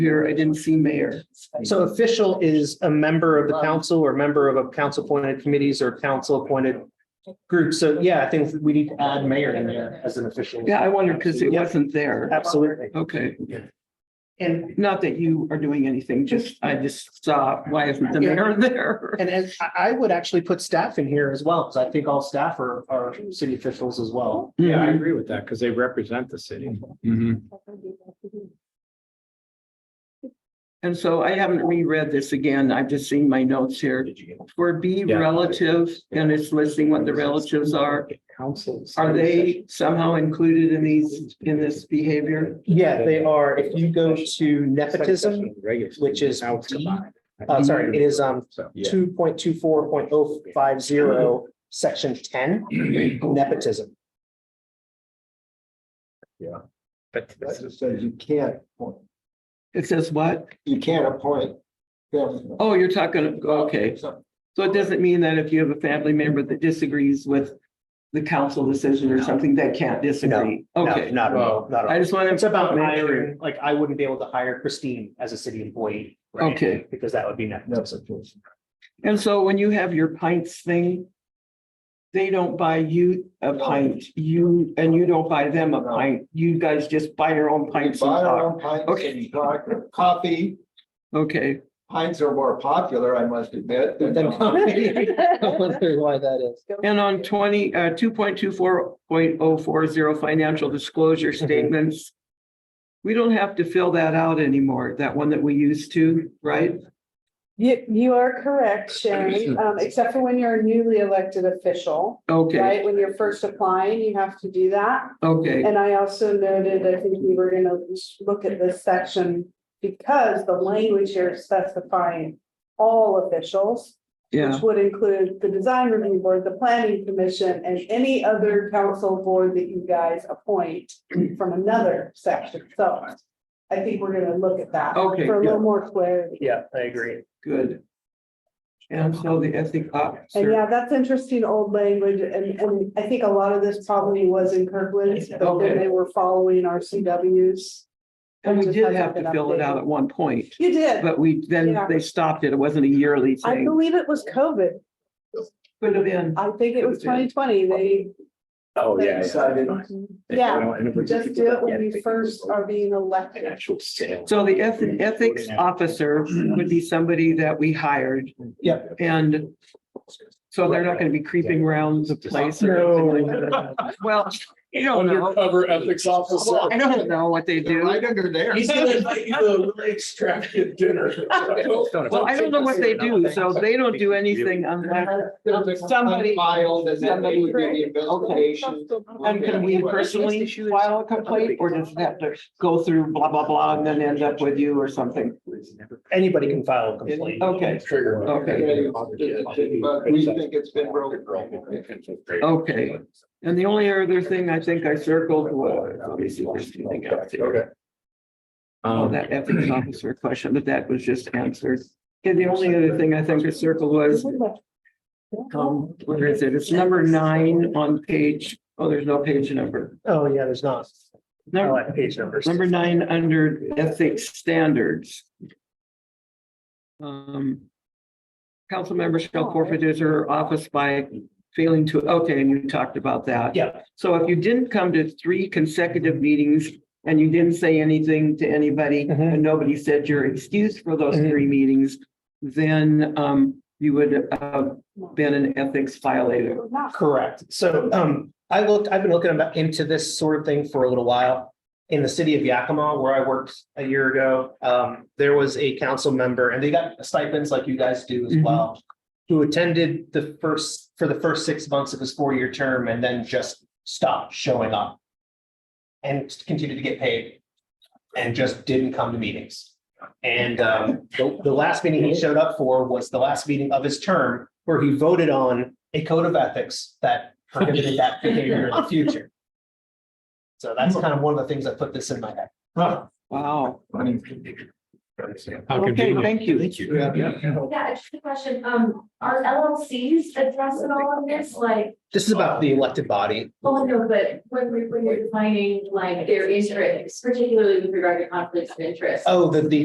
here, I didn't see mayor. So official is a member of the council or member of a council appointed committees or council appointed group. So yeah, I think we need to add mayor in there as an official. Yeah, I wondered because it Yeah, wasn't there. Absolutely. Okay, And, not that you are doing anything, just, I just saw, why isn't the mayor there? and as I, I would actually put staff in here as well, because I think all staff are, are city officials as well. Yeah, I Hmm. Mm-hmm. agree with that because they represent the city. And so I haven't reread this again. I've just seen my notes here. For B Yeah. relative, and it's listing what the relatives are, Councils. are they somehow included in these, in this behavior? Yeah, they are. If you go to nepotism, which is Out D, combined. uh, sorry, it is, um, So, two point two four point oh five zero, section ten, nepotism. But That just says you can't, appoint- It says what? you can't appoint them. Oh, you're talking, okay. So it doesn't mean that if you have a family member that disagrees with the council decision or something, they can't disagree. No, Okay, Not at all, not at all. I just want to. It's about hiring, like I wouldn't be able to hire Christine as a city employee. right? Okay. Because that would be nepotism. And so when you have your pints thing, they don't buy you a pint, you, and you don't buy them a pint. You guys just buy your own We pints. and buy our talk. own pints Okay. and talk. coffee. Okay, Pints are more popular, I must admit, than coffee. I wonder why that is. and on twenty, uh, two point two four point oh four zero financial disclosure Mhm. statements. We don't have to fill that out anymore, that one that we used to, right? You, you are correct, Sharon, um, except for when you're a newly elected official, Okay, right? When you're first applying, you have to do that. okay, And I also noted, I think we were gonna look at this section because the language here is specifying all officials, yeah, which would include the design review board, the planning commission, and any other council board that you guys appoint from another section. So I think we're gonna look at that Okay, for a little good. more clarity. Yeah, I agree. good. And so the ethic And officer, yeah, that's interesting old language, and, and I think a lot of this probably was in Kirkland, but Okay. then they were following our CWs. and we Just did hasn't have to been fill it out updated. at one point, You did, but we, then Yeah. they stopped it. It wasn't a yearly I thing. believe it was COVID, Could have been. I think it was twenty twenty, they, Oh, yeah. Decided. yeah, just do it when you first are being elected. Actual sale. So the eth- ethics officer would be somebody that we hired Yeah. and so they're not gonna be creeping around the place. or anything like that. Well, you don't know. Undercover ethics officer. Well, I don't know what they do. Right under there. Well, I don't know what they do, so they don't do anything unless There's a Somebody- complaint Filed and then they would do the investigation. And can we personally file a complaint or does it have to go through blah, blah, blah, and then end up with you or something? Anybody can file a complaint. Okay, Trigger. okay. But we think it's been broken. Okay. And the only other thing I think I circled was, let me see, there's something else here. Oh, Um, that ethics officer question, but that was just answered. And the only other thing I think I circled was, um, where is it? It's number nine on page, oh, there's no page number. Oh, yeah, there's not. I Number, like page numbers. number nine under ethics standards. Um. Council members Oh. shall forfeit his or her office by failing to, okay, and you talked about that. Yeah. So if you didn't come to three consecutive meetings and you didn't say anything to anybody Mhm. and nobody said your excuse for those Mhm. three meetings, then um you would have been an ethics violator. Correct. So um, I looked, I've been looking about into this sort of thing for a little while. In the city of Yakima, where I worked a year ago, um, there was a council member and they got stipends like you guys do as Mhm. well. Who attended the first, for the first six months of his four-year term and then just stopped showing up. And continued to get paid and just didn't come to meetings. And um, the, the last meeting he showed up for was the last meeting of his term where he voted on a code of ethics that prohibited that behavior in the future. So that's kind of one of the things that put this in my head. Wow. How Okay, convenient. thank you. you. Yeah. Yeah, just a question, um, are LLCs addressing all of this, like, This is about the elected body. oh, no, but when we, when you're defining like their interests, particularly with regard to conflicts of interest? Oh, the, the